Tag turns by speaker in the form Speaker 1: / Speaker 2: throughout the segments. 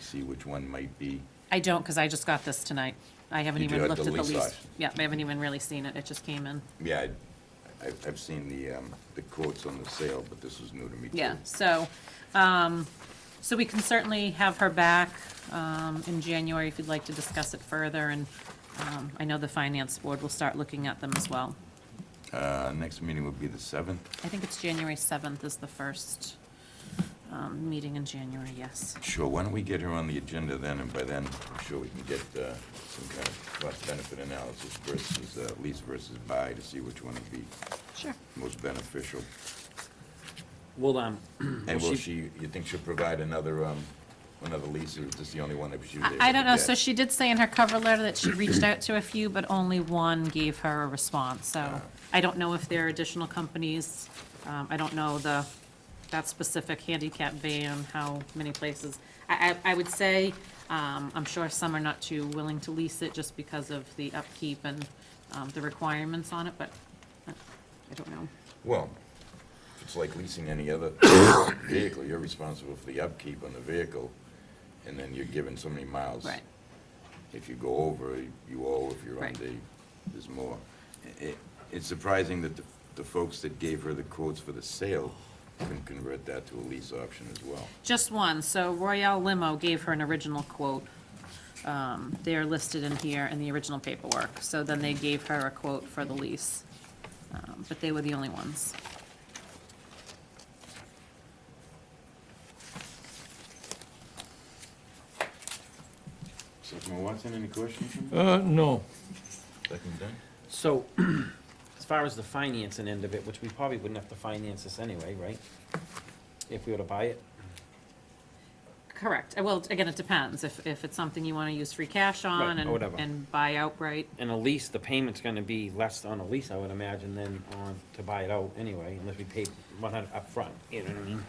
Speaker 1: see which one might be.
Speaker 2: I don't, because I just got this tonight. I haven't
Speaker 1: You do
Speaker 2: even
Speaker 1: have
Speaker 2: looked
Speaker 1: the
Speaker 2: at the
Speaker 1: lease
Speaker 2: lease.
Speaker 1: size.
Speaker 2: Yeah, I haven't even really seen it, it just came in.
Speaker 1: Yeah, I- I've, I've seen the, um, the quotes on the sale, but this is new to me too.
Speaker 2: Yeah, so, um, so we can certainly have her back, um, in January if you'd like to discuss it further, and, um, I know the finance board will start looking at them as well.
Speaker 1: Uh, next meeting would be the seventh.
Speaker 2: I think it's January seventh is the first, um, meeting in January, yes.
Speaker 1: Sure, why don't we get her on the agenda then, and by then, I'm sure we can get, uh, some kind of cost-benefit analysis versus, uh, lease versus buy to see which one would be
Speaker 2: Sure.
Speaker 1: most beneficial.
Speaker 3: Well, um,
Speaker 1: And
Speaker 3: Well,
Speaker 1: will
Speaker 3: she-
Speaker 1: she, you think she'll provide another, um, another lease, or is this the only one that she was able to
Speaker 2: I, I don't know, so
Speaker 1: get?
Speaker 2: she did say in her cover letter that she reached out to a few, but only one gave her a response, so I don't know if there are additional companies. Um, I don't know the, that specific handicap van, how many places. I, I, I would say, um, I'm sure some are not too willing to lease it just because of the upkeep and, um, the requirements on it, but uh, I don't know.
Speaker 1: Well, it's like leasing any other vehicle, you're responsible for the upkeep on the vehicle, and then you're given so many miles.
Speaker 2: Right.
Speaker 1: If you go over, you owe, if you're
Speaker 2: Right.
Speaker 1: under, there's more. I- i- It's surprising that the- the folks that gave her the quotes for the sale can convert that to a lease option as well.
Speaker 2: Just one, so Royale Limo gave her an original quote. Um, They are listed in here in the original paperwork, so then they gave her a quote for the lease. Um, But they were the only ones.
Speaker 1: Selectman Watson, any questions from
Speaker 4: Uh, no.
Speaker 1: Second done?
Speaker 3: so, as far as the financing end of it, which we probably wouldn't have to finance this anyway, right? If we were to buy it?
Speaker 2: Correct, Uh, well, again, it depends, if, if it's something you want to use free cash
Speaker 3: Right,
Speaker 2: on
Speaker 3: or
Speaker 2: and,
Speaker 3: whatever.
Speaker 2: and buy outright.
Speaker 3: And a lease, the payment's gonna be less on a lease, I would imagine, than on, to buy it out anyway, unless we paid one hundred upfront, you know what I mean?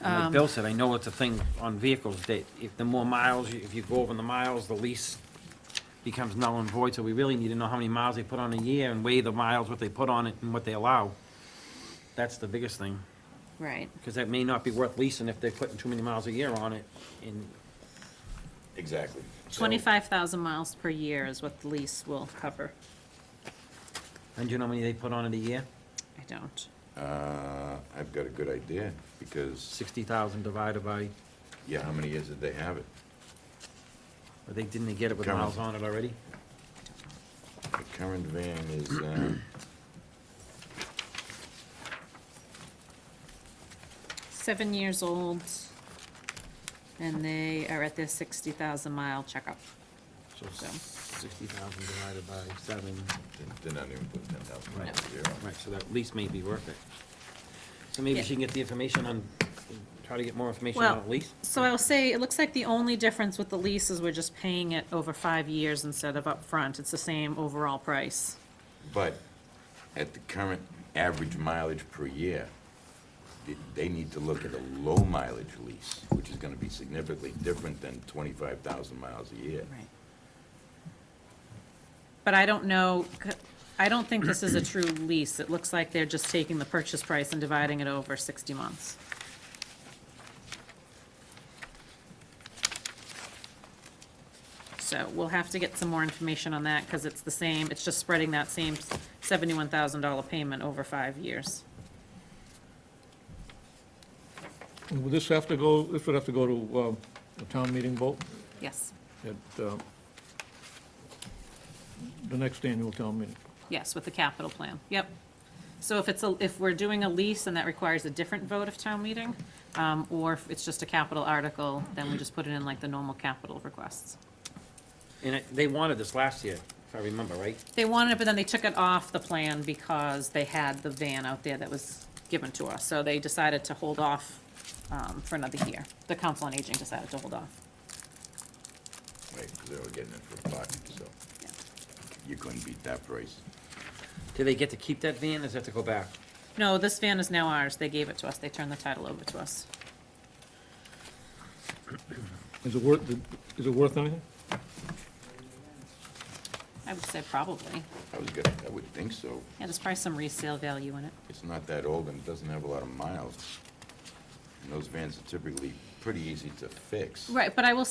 Speaker 3: And like Bill said, I know it's a thing on vehicles, that if the more miles, you- if you go over the miles, the lease becomes null and void, so we really need to know how many miles they put on a year and weigh the miles, what they put on it and what they allow. That's the biggest thing,
Speaker 2: Right.
Speaker 3: because that may not be worth leasing if they're putting too many miles a year on it, and
Speaker 1: Exactly. So-
Speaker 2: 25,000 miles per year is what the lease will cover.
Speaker 3: and you know how many they put on it a year?
Speaker 2: I don't.
Speaker 1: Uh, I've got a good idea, because,
Speaker 3: Sixty thousand divided by,
Speaker 1: yeah, how many years did they have it?
Speaker 3: I think, didn't they get it with
Speaker 1: Come on.
Speaker 3: miles on it already?
Speaker 1: The current van is, um,
Speaker 2: Seven years old, and they are at their 60,000 mile checkup.
Speaker 3: So
Speaker 2: So.
Speaker 3: sixty thousand divided by seven,
Speaker 1: they're not even putting ten thousand
Speaker 3: Right.
Speaker 1: miles a year on it.
Speaker 3: right, so that lease may be worth it. So maybe
Speaker 2: Yeah.
Speaker 3: she can get the information on, try to get more information
Speaker 2: Well-
Speaker 3: on the lease?
Speaker 2: So I'll say, it looks like the only difference with the lease is we're just paying it over five years instead of upfront. It's the same overall price.
Speaker 1: But at the current average mileage per year, th- they need to look at a low mileage lease, which is gonna be significantly different than twenty-five thousand miles a year.
Speaker 2: Right. But I don't know, c- I don't think this is a true lease. It looks like they're just taking the purchase price and dividing it over sixty months. So we'll have to get some more information on that, because it's the same, it's just spreading that same seventy-one thousand dollar payment over five years.
Speaker 4: Would this have to go, this would have to go to um, a town meeting vote
Speaker 2: Yes.
Speaker 4: at uh, the next annual town meeting?
Speaker 2: Yes, with the capital plan, yep. So if it's, a if we're doing a lease and that requires a different vote of town meeting, um, or if it's just a capital article, then we just put it in like the normal capital requests.
Speaker 3: And it- they wanted this last year, if I remember, right?
Speaker 2: They wanted it, but then they took it off the plan because they had the van out there that was given to us. So they decided to hold off um, for another year. The council on aging decided to hold off.
Speaker 1: Right, 'cause they were getting it for a buck, so
Speaker 2: Yeah.
Speaker 1: you couldn't beat that price.
Speaker 3: Do they get to keep that van, or does it have to go back?
Speaker 2: No, this van is now ours. They gave it to us. They turned the title over to us.
Speaker 4: Is it worth, is it worth anything?
Speaker 2: I would say probably.
Speaker 1: I was gonna, I would think so.
Speaker 2: Yeah, there's probably some resale value in it.
Speaker 1: It's not that old and it doesn't have a lot of miles. And those vans are typically
Speaker 5: pretty easy to fix.
Speaker 1: Right, but I will